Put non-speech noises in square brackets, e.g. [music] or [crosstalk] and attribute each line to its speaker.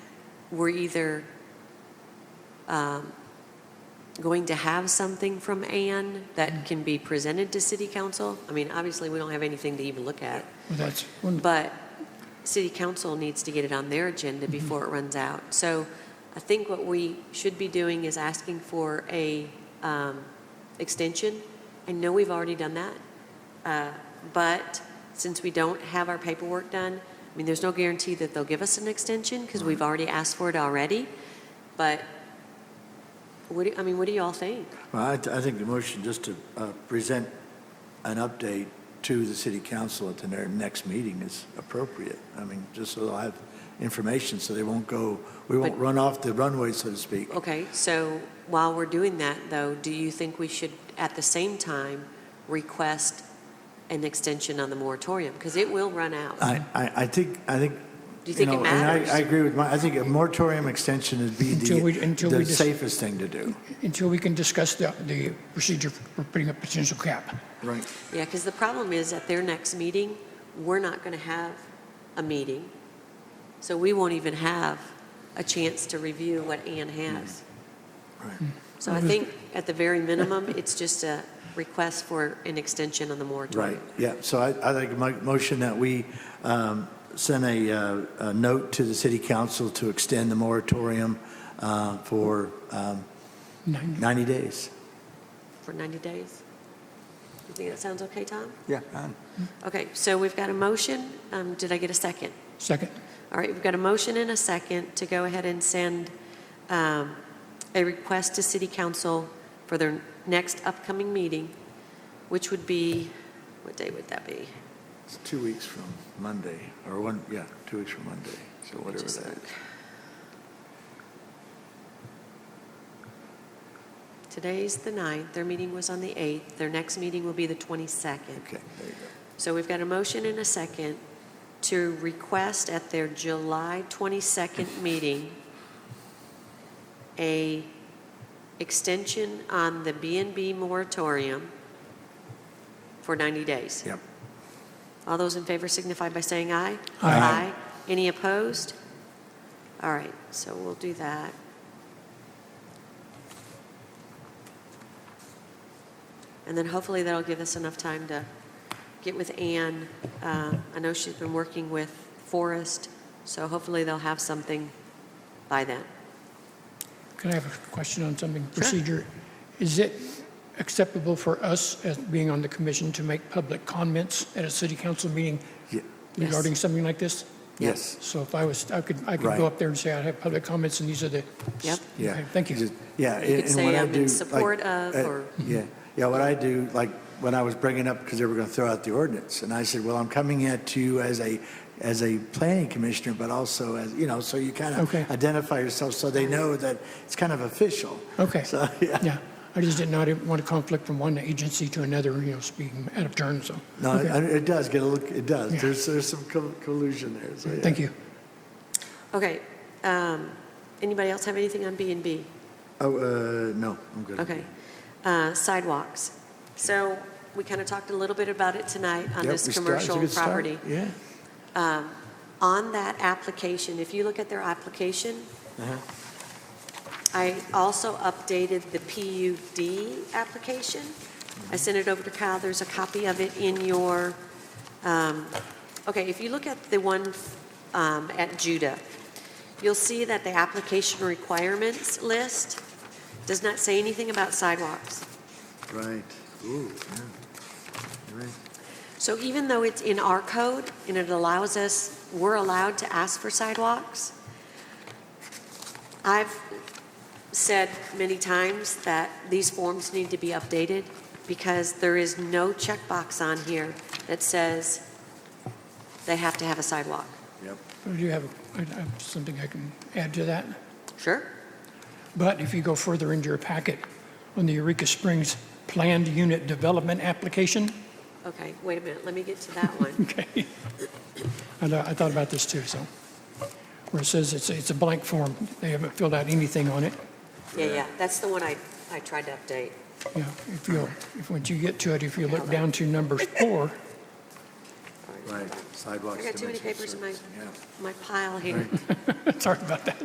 Speaker 1: we're either um, going to have something from Ann that can be presented to city council. I mean, obviously, we don't have anything to even look at,
Speaker 2: Well, That's, wonderful.
Speaker 1: but city council needs to get it on their agenda before it runs out. So I think what we should be doing is asking for a um, extension. I know we've already done that, uh, but since we don't have our paperwork done, I mean, there's no guarantee that they'll give us an extension because we've already asked for it already. But what do, I mean, what do y'all think?
Speaker 3: Well, I, I think the motion just to uh, present an update to the city council at their next meeting is appropriate. I mean, just so they'll have information, so they won't go, we won't
Speaker 1: But- Oh.
Speaker 3: run off the runway, so to speak.
Speaker 1: Okay, so while we're doing that, though, do you think we should, at the same time, request an extension on the moratorium? Because it will run out. Do
Speaker 3: I, I, I think, I think.
Speaker 1: you think it
Speaker 3: know, and I- I
Speaker 1: matters?
Speaker 3: agree with my, I think a moratorium extension would be
Speaker 2: Until we-
Speaker 3: the,
Speaker 2: until we
Speaker 3: the
Speaker 2: dis-
Speaker 3: safest thing to do.
Speaker 2: until we can discuss the, the procedure for putting a potential cap.
Speaker 3: Right.
Speaker 1: Yeah, because the problem is, at their next meeting, we're not going to have a meeting, so we won't even have a chance to review what Ann has.
Speaker 3: Right.
Speaker 1: So I think, at the very minimum, it's just a request for an extension on the moratorium.
Speaker 3: Right, yeah, so I, I think my motion that we um, send a, uh, a note to the city council to extend the moratorium uh, for um,
Speaker 2: Nine-
Speaker 3: 90 days.
Speaker 1: For 90 days? You think that sounds okay, Tom?
Speaker 3: Yeah.
Speaker 1: Okay, so we've got a motion. Um, Did I get a second?
Speaker 2: Second,
Speaker 1: All right, we've got a motion and a second to go ahead and send um, a request to City Council for their next upcoming meeting, which would be, what day would that be?
Speaker 3: It's two weeks from Monday, or one, yeah, two weeks from Monday, so whatever
Speaker 1: Just
Speaker 3: that
Speaker 1: look.
Speaker 3: is.
Speaker 1: Today's the 9th, their meeting was on the 8th, their next meeting will be the 22nd.
Speaker 3: Okay, there you
Speaker 1: So we've got a motion and a second to request at their July 22nd meeting a extension on the B and B moratorium for 90 days.
Speaker 3: go. Yep.
Speaker 1: All those in favor signify by saying aye.
Speaker 2: Aye.
Speaker 1: Any opposed? All right, so we'll do that. And then hopefully that'll give us enough time to get with Ann. Uh, I know she's been working with Forrest, so hopefully they'll have something by then.
Speaker 2: can I have a question on something? Procedure, is it acceptable for us as being on the commission to make public comments at a city council meeting
Speaker 3: Ye-
Speaker 1: Yes.
Speaker 2: regarding something like this?
Speaker 3: Yes.
Speaker 2: So if I was, I could, I could
Speaker 3: Right.
Speaker 2: go up there and say I have public comments and these are the.
Speaker 1: Yep.
Speaker 3: Yeah.
Speaker 2: Okay, Thank you.
Speaker 3: Just-
Speaker 1: You
Speaker 3: Yeah.
Speaker 1: could
Speaker 3: and- and what
Speaker 1: say,
Speaker 3: I
Speaker 1: "I'm in
Speaker 3: do, like,
Speaker 1: support of,"
Speaker 3: uh,
Speaker 1: or-
Speaker 3: Yeah, yeah, what I do, like, when I was bringing up, because they were going to throw out the ordinance, and I said, well, I'm coming at you as a, as a planning commissioner, but also as, you know, so you kind of
Speaker 2: Okay.
Speaker 3: identify yourself, so they know that it's kind of official.
Speaker 2: Okay.
Speaker 3: So, yeah,
Speaker 2: Yeah, I just did not want a conflict from one agency to another, you know, speaking out of turn, so.
Speaker 3: no,
Speaker 2: Okay.
Speaker 3: it it does get a look, it does,
Speaker 2: Yeah.
Speaker 3: there's, there's some col- collusion there, so, yeah.
Speaker 2: Thank you.
Speaker 1: Okay, um, anybody else have anything on B and B?
Speaker 3: Oh, uh, no, I'm good.
Speaker 1: Okay. Uh, Sidewalks. So we kind of talked a little bit about it tonight on
Speaker 3: Yep,
Speaker 1: this
Speaker 3: we start- it's a
Speaker 1: commercial
Speaker 3: good start,
Speaker 1: property.
Speaker 3: Yeah.
Speaker 1: um, On that application, if you look at their application, I also updated the PUD application. I sent it over to Kyle. There's a copy of it in your, um, okay, if you look at the one um, at Judah, you'll see that the application requirements list does not say anything about sidewalks.
Speaker 3: Right, ooh, yeah, You're right.
Speaker 1: So even though it's in our code and it allows us, we're allowed to ask for sidewalks, I've said many times that these forms need to be updated because there is no checkbox on here that says they have to have a sidewalk.
Speaker 3: yep.
Speaker 2: Do you have, a- I have something I can add to that?
Speaker 1: Sure?
Speaker 2: But if you go further into your packet, on the Eureka Springs Planned Unit Development Application, [laughs]
Speaker 1: Okay, wait a minute, let me get to that [laughs] one.
Speaker 2: okay, I know- I thought about this too, so, where it says it's, it's a blank form, they haven't filled out anything on it,
Speaker 1: Yeah, yeah, that's the one I, I tried to update.
Speaker 2: yeah, if you'll, if, once you get to it, if you look down to number four, [laughs]
Speaker 1: All
Speaker 3: Right, sidewalks.
Speaker 1: I got too many
Speaker 3: dimensions,
Speaker 1: papers in my-
Speaker 3: surface, yeah.
Speaker 1: My pile here.
Speaker 2: sorry about that.